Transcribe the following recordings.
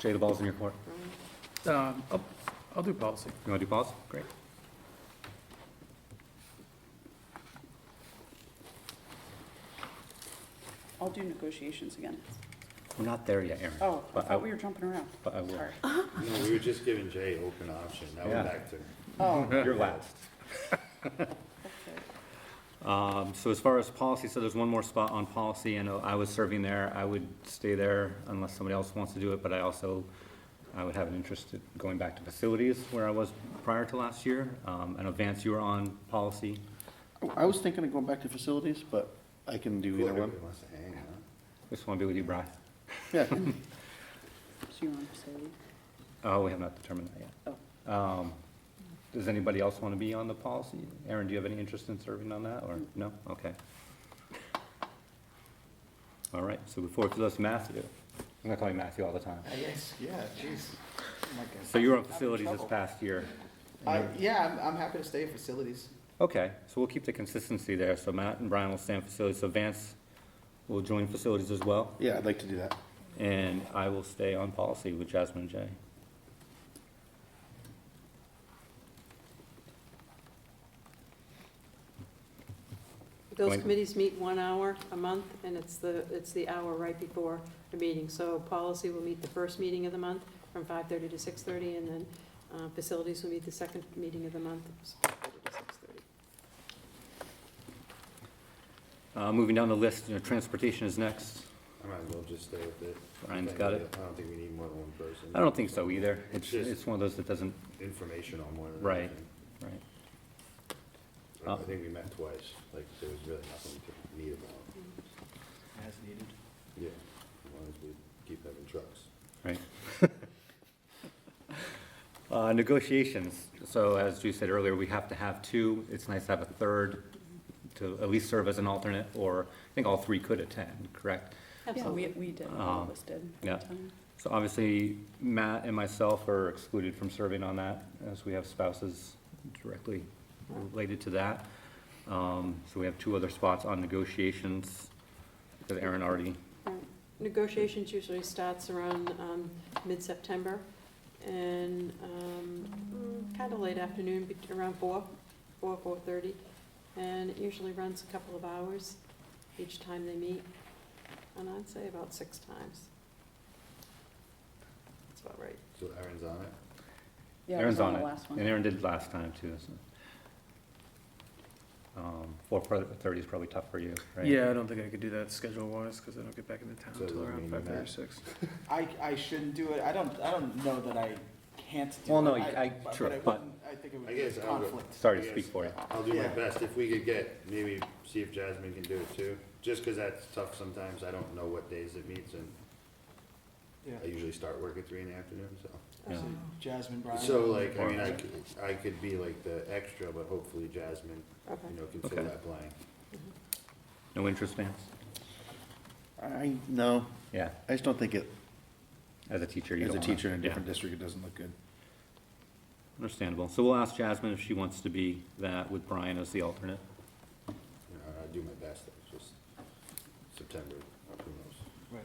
Jay, the ball's in your court. Um, I'll, I'll do policy. You want to do policy? Great. I'll do negotiations again. We're not there yet, Aaron. Oh, I But thought we were jumping around. But I will. Sorry. No, we were just giving Jay open option, now Yeah. we're back to. Oh, You're last. Um, So as far as policy, so there's one more spot on policy, and I was serving there. I would stay there unless somebody else wants to do it, but I also, I would have an interest in going back to facilities where I was prior to last year. Um, And Vance, you were on policy. I was thinking of going back to facilities, but I can do either one. Everybody wants to hang, huh? Just want to be with you, Brian. Yeah, so you want to say, Oh, we have not determined that yet. oh, Um, Does anybody else want to be on the policy? Aaron, do you have any interest in serving on that, or, no? Okay. All right, so before it goes to Matthew, I'm gonna call you Matthew all the time. Yes, yeah, jeez. Oh my goodness. So you were on I'm in facilities this trouble. past year. I, yeah, I'm, I'm happy to stay at facilities. Okay, so we'll keep the consistency there, so Matt and Brian will stay on facilities, so Vance will join facilities as well, yeah, I'd like to do that. and I will stay on policy with Jasmine and Jay. Those When- committees meet one hour a month, and it's the, it's the hour right before the meeting. So policy will meet the first meeting of the month from 5:30 to 6:30, and then uh, facilities will meet the second meeting of the month, it's 5:30 to 6:30. Uh, Moving down the list, you know, transportation is next. I might as well just stay with it. Brian's got it. I don't think we need more than one person. I don't think so either. It's, Just- it's one of those that doesn't, Information on one of them. Right. right. Oh. I think we met twice, like, there was really nothing to meet about, As needed. yeah, as long as we keep having trucks. Right. Uh, Negotiations, so as you said earlier, we have to have two, it's nice to have a third to at least serve as an alternate, or I think all three could attend, correct? yeah, we, Absolutely. we did, all Um, of us did. yeah. Um, So obviously, Matt and myself are excluded from serving on that, as we have spouses directly related to that. Um, So we have two other spots on negotiations, that Aaron already, Negotiations usually starts around um, mid-September, and um, kind of late afternoon, bet- around 4, 4, 4:30. And it usually runs a couple of hours each time they meet, and I'd say about six times. That's about right. So Aaron's on it? Yeah, I was Aaron's on on the it. last And one. Aaron did last time too, so. Um, Four thirty is probably tough for you, right? Yeah, I don't think I could do that schedule-wise, because I don't get back into town So until does that around mean five that- thirty-six. I, I shouldn't do it. I don't, I don't know that I can't do it. Well, no, I- sure, it but- wouldn't- I think it I would guess be a I'll go- conflict. Sorry to speak for you. I'll do my Yeah. best, if we could get, maybe see if Jasmine can do it too, just 'cause that's tough sometimes, I don't know what days it meets, and Yeah. I usually start work at three in the afternoon, so. Yeah. Um, Jasmine, Brian. So like, I mean, I could, I could be like the extra, but hopefully Jasmine, Okay. you know, can fill Okay. that blank. No interest, Vance? I, no, Yeah, I just don't think it, as a teacher, you as don't a wanna- teacher in a yeah. different district, it doesn't look good. Understandable. So we'll ask Jasmine if she wants to be that with Brian as the alternate. You know, I do my best, it's just September, who knows? Right.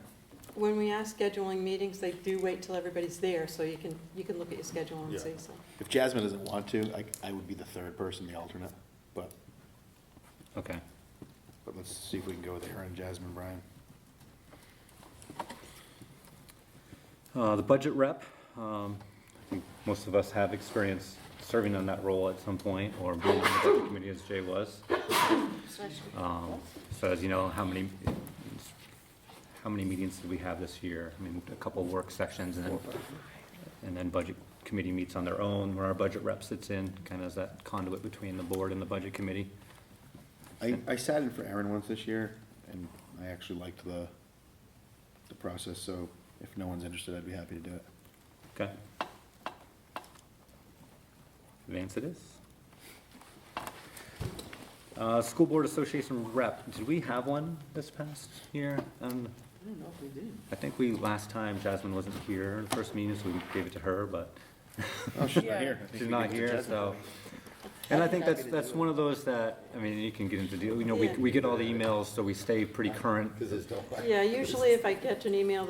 When we ask scheduling meetings, they do wait till everybody's there, so you can, you can look at your schedule and Yeah. see, so. If Jasmine doesn't want to, I, I would be the third person, the alternate, but, Okay. but let's see if we can go with Aaron, Jasmine, Brian. Uh, The budget rep, um, I think most of us have experience serving on that role at some point, or being on the budget committee as Jay was. Um, So as you know, how many, how many meetings did we have this year? I mean, a couple work sections and then, and then budget committee meets on their own where our budget rep sits in, kind of as that conduit between the board and the budget committee. I, I sat in for Aaron once this year, and I actually liked the, the process, so if no one's interested, I'd be happy to do it. Okay. Vance it is. Uh, School Board Association rep, did we have one this past year? Um, I don't know if we did. I think we, last time Jasmine wasn't here, the first meeting, so we gave it to her, but Oh, she's Yeah. not here. I think she's we not can get here, Jasmine. so. And I think happy that's, to that's do it. one of those that, I mean, you can get into deal, you know, we, Yeah. we get all the emails, so we stay pretty current Cause it's don't. Yeah, usually if I get an email